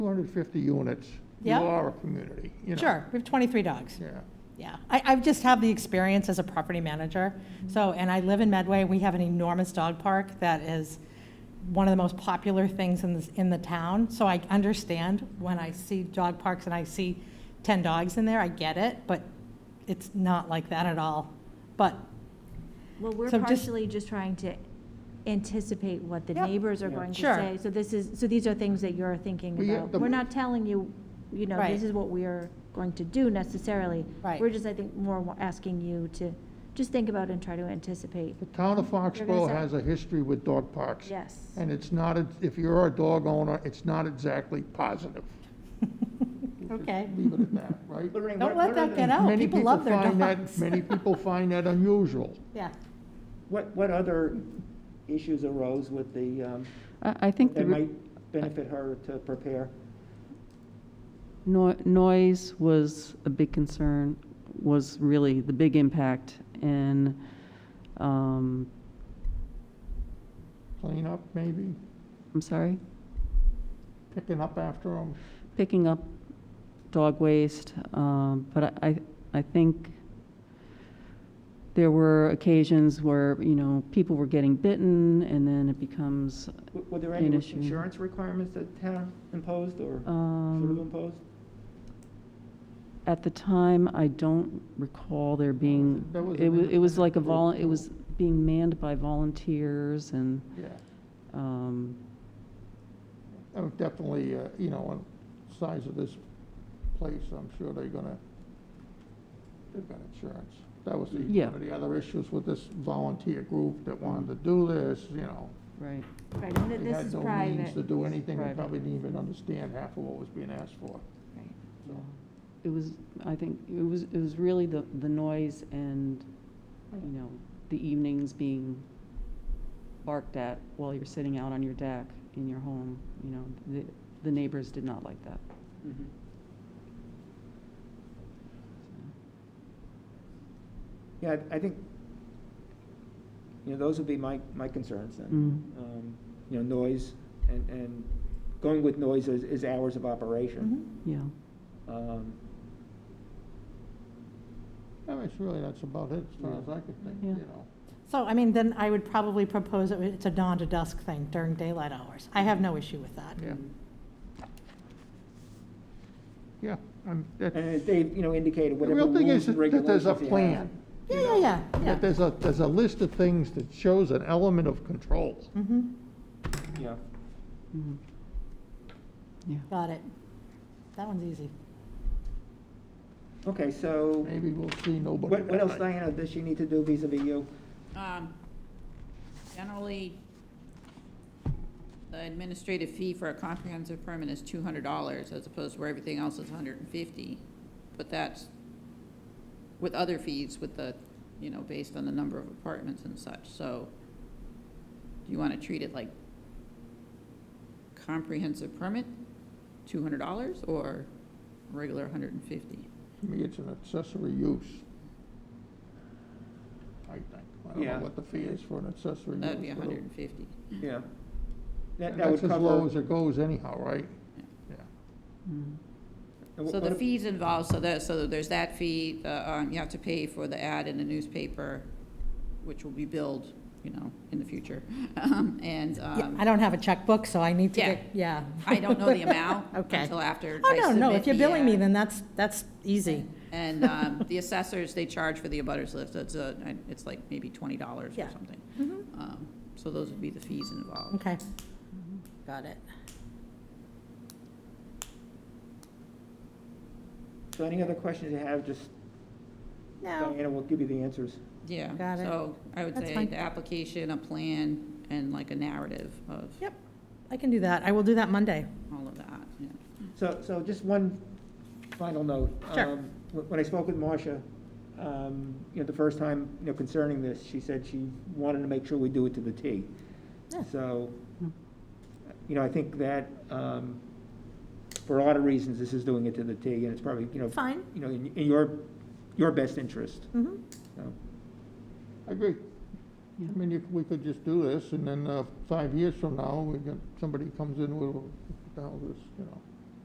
250 units, you Yeah. are a community, you know. Sure, we have 23 dogs. Yeah. Mm-hmm. Yeah, I, I just have the experience as a property manager. So, and I live in Medway, we have an enormous dog park that is one of the most popular things in, this, in the town. So I understand when I see dog parks and I see 10 dogs in there, I get it, but it's not like that at all. But, Well, we're So just- partially just trying to anticipate what the Yep. neighbors are Yeah. going to Sure. say. So this is, so these are things that you're thinking We have about. the- We're not telling you, you know, Right. this is what we are going to do necessarily. Right. We're just, I think, more wa- asking you to just think about and try to anticipate. The town of Foxborough say- has a history with dog parks. Yes. And it's not, a- if you're a dog owner, it's not exactly positive. okay, Leave it at that, right? Lorraine, don't what- let what that get other- out. Many People love their find that- dogs. Many people find that unusual. Yeah, What, what other issues arose with the, um, I I think the that re- might benefit her to prepare? noi- noise was a big concern, was really the big impact, and um, Clean up, maybe, I'm sorry, picking up after them. picking up dog waste, um, but I, I think there were occasions where, you know, people were getting bitten, and then it becomes, W- Were there any An issue. insurance requirements that town imposed or should have um, imposed? at the time, I don't recall there being, That was it an was, it was like a independent vol, group, it was being manned by volunteers and Yeah. um, Oh, Definitely, uh, you know, on size of this place, I'm sure they're gonna, they've got insurance. That was the, Yeah. one of the other issues with this volunteer group that wanted to do this, you know. Right. Right, and th- They this had is no means private. to do anything, they Private. probably didn't even understand half of what was being asked for. Right. So, It was, I think, it was, it was really the, the noise and, you know, the evenings being barked at while you're sitting out on your deck in your home, you know, the, the neighbors did not like that. Mhm. Yeah, I I think, you know, those would be my, my concerns then. Mm. Um, You know, noise and, and going with noise is, is hours of operation. Mhm. Yeah, Mm-hmm. Um, I mean, it's really, that's about it, as far Yeah. as I could think, Yeah. you know. so I mean, then I would probably propose that it's a dawn to dusk thing during daylight hours. I have no issue with that. Yeah. Yeah, I'm, that, And as Dave, you know, indicated, the whatever real thing is rules and that that there's regulations you a have. plan. Yeah, yeah, yeah, yeah. That there's a, there's a list of things that shows an element of Mm-hmm. control. Mhm. Yeah. Mhm. yeah. Got it. That one's easy. Okay, so Maybe we'll see nobody. what, what else, that night. Diana, does she need to do vis-à-vis you? Um, Generally, the administrative fee for a comprehensive permit is two hundred dollars as opposed to where everything else is hundred and fifty. But that's with other fees with the, you know, based on the number of apartments and such, so do you want to treat it like comprehensive permit, two hundred dollars, or regular hundred and fifty? To me, it's an accessory use. I think. I don't know Yeah. what the fee is for an accessory use. That'd be but it- hundred and fifty. Yeah. That, and that would That's as low as cover. it goes anyhow, right? Yeah. Yeah. Mhm. and wh- So the what- fees involved, so that, so there's that fee, the, um, you have to pay for the ad in the newspaper, which will be billed, you know, in the future. Um, And, Yeah, I um, don't have a checkbook, so I need to Yeah. get, yeah. I don't know the amount Okay. until after Oh, I no, no, if submit you're the billing me, ad. then that's, that's easy. And, um, the assessors, they charge for the abutters list, it's a, it's like maybe twenty dollars or Yeah. something. Um, So those would be the fees involved. Mm-hmm. Okay. Mm-hmm. Got it. So any other questions you have, just No, Diana will give you the answers. Yeah. Got it. So I would That's say fine. the application, a plan, and like a narrative of yep, I can do that. I will do that Monday. all of that, yeah. So, so just one final note. Mm. Sure. Um, wh- When I spoke with Marcia, um, you know, the first time, you know, concerning this, she said she wanted to make sure we do it to the T. Yeah. So, Hmm. you know, I think that, um, for a lot of reasons, this is doing it to the T, and it's probably, you know, Fine. you know, in in your, your best interest, Mm-hmm. so. I agree. Yeah. I mean, you- we could just do this, and then uh, five years from now, we got, somebody comes in with, what the hell is this, you know?